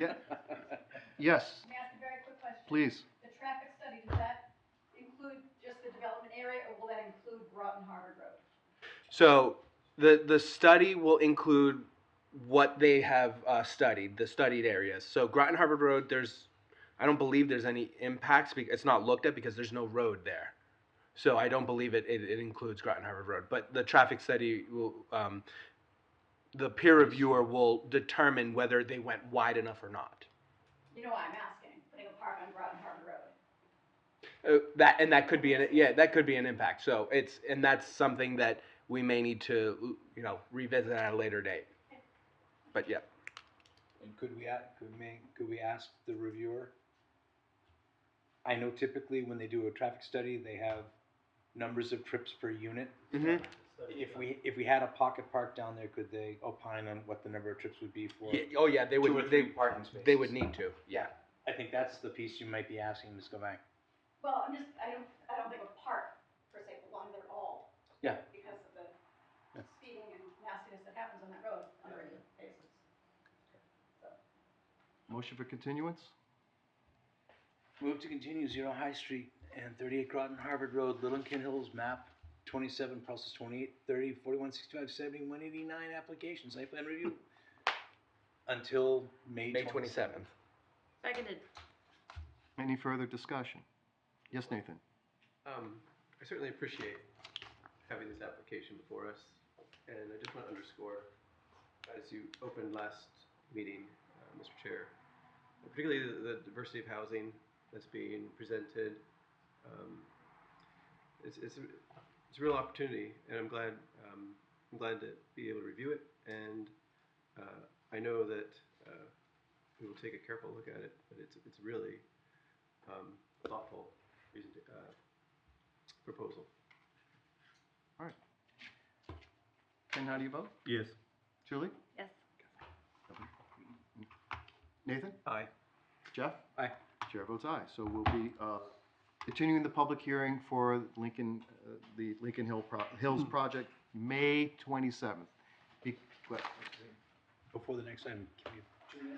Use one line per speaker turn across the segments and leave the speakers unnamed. Yes,
May I ask a very quick question?
please.
The traffic study, does that include just the development area, or will that include Groton Harbor Road?
So the the study will include what they have uh, studied, the studied areas. So Groton Harbor Road, there's, I don't believe there's any impacts. Because it's not looked at because there's no road there. So I don't believe it, it, it includes Groton Harbor Road. But the traffic study will, um, the peer reviewer will determine whether they went wide enough or not.
You know why I'm asking, putting a park on Groton Harbor Road.
Uh, that and that could be an yeah that could be an impact. So it's and that's something that we may need to you know revisit at a later date. But yeah.
And could we, a- could we, could we ask the reviewer? I know typically when they do a traffic study, they have numbers of trips per unit.
hmm
If we, if we had a pocket park down there, could they opine on what the number of trips would be for?
Yeah, oh yeah, they
Two
would.
or
they,
three parking spaces.
they would need to. Yeah.
I think that's the piece you might be asking, Ms. Gavang.
Well, I'm just, I don't, I don't think a park per se belongs there at all.
Yeah.
Because of
Yeah.
the speeding and nastiness that happens on that road on a regular basis.
Motion for continuance?
Move to continue Zero High Street and thirty-eight Groton Harvard Road, Littleton Hills, map twenty-seven, parcels 28, 30, 41, 65, 70, 189. application, site plan review. Until May
May twenty seventh.
Seconded.
Any further discussion? Yes, Nathan?
Um, I certainly appreciate having this application before us, and I just want to underscore, as you opened last meeting, uh, Mr. Chair, particularly the, the diversity of housing that's being presented, um, it's, it's, a, it's a real opportunity, and I'm glad, um, I'm glad to be able to review it, and, uh, I know that, uh, we will take a careful look at it, but it's, it's really, um, thoughtful, present- uh, proposal.
Ken, how do you vote?
Yes.
Julie?
Yes.
Nathan?
Aye.
Jeff?
Aye.
Chair votes aye. So we'll be uh, continuing the public hearing for Lincoln, uh, the Lincoln Hill pro-
Hmm.
Hills project, May 27th. Be- what-
Before the next item, can we,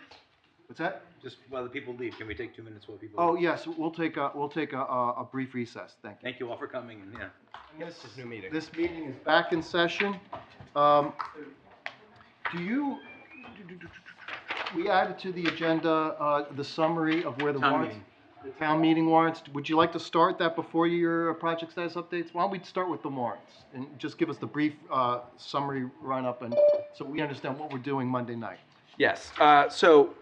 What's that?
just while the people leave, can we take two minutes while people?
Oh,
leave?
yes, we'll take a, we'll take a, a a brief recess. Thank you.
Thank you all for coming, and yeah.
This is new meeting.
This meeting is back in session. Um, Do you, we added to the agenda uh, the summary of where the
Town
warrants. the Town meeting warrants. Would you like to start that before your project status updates? Why don't we start with the warrants? And just give us the brief uh, summary run-up and, so we understand what we're doing Monday night.
Yes. Uh, so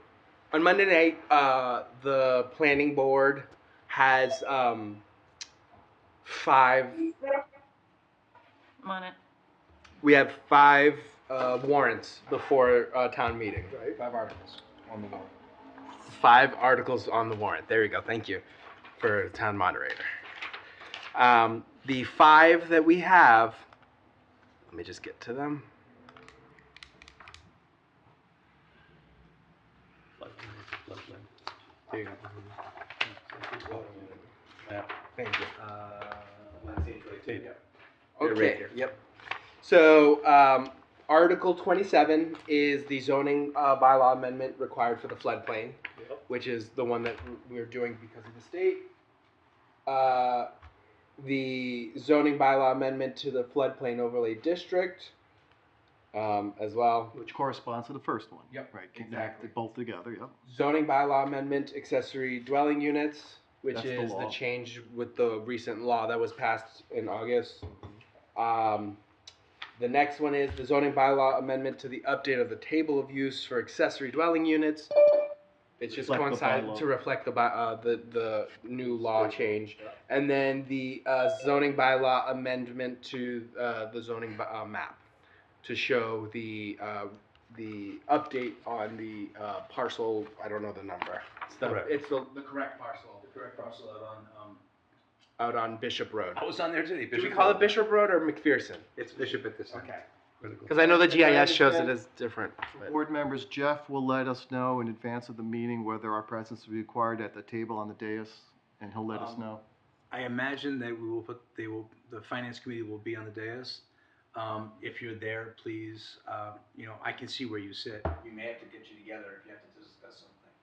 on Monday night, uh, the planning board has um, five.
I'm on it.
We have five uh, warrants before uh, town meeting.
Five articles on the wall.
Five articles on the warrant. There you go. Thank you for town moderator. Um, the five that we have. Let me just get to them.
There you go.
Thank you.
Yeah, right
Okay,
here.
yep. So, um, Article twenty-seven is the zoning, uh, bylaw amendment required for the floodplain, which is the one that w- we're doing because of the state. Uh, the zoning bylaw amendment to the floodplain overlay district, um, as well.
Which corresponds to the first one.
Yep,
Right,
exactly.
connect both together, yep.
Zoning bylaw amendment accessory dwelling units, which
That's the
is the
law.
change with the recent law that was passed in August. Um, the next one is the zoning bylaw amendment to the update of the table of use for accessory dwelling units. It's just
Reflect the
coincided
bylaw.
to reflect the by, uh, the, the new law change. And then the, uh, zoning bylaw amendment to, uh, the zoning, by- uh, map to show the, uh, the update on the, uh, parcel, I don't know the number. It's the,
Correct.
it's the, the correct parcel
Correct parcel out on, um.
out on Bishop Road.
I was on there today.
Do we call it Bishop Road or McPherson?
It's Bishop at this
Okay.
Okay.
Cause I know the
As I
GIS shows it
understand-
as different. but-
Board members, Jeff will let us know in advance of the meeting whether our presence will be required at the table on the dais, and he'll let us
Um,
know.
I imagine that we will put, they will, the finance committee will be on the dais. Um, if you're there, please, uh, you know, I can see where you sit. We may have to get you together if you have to discuss some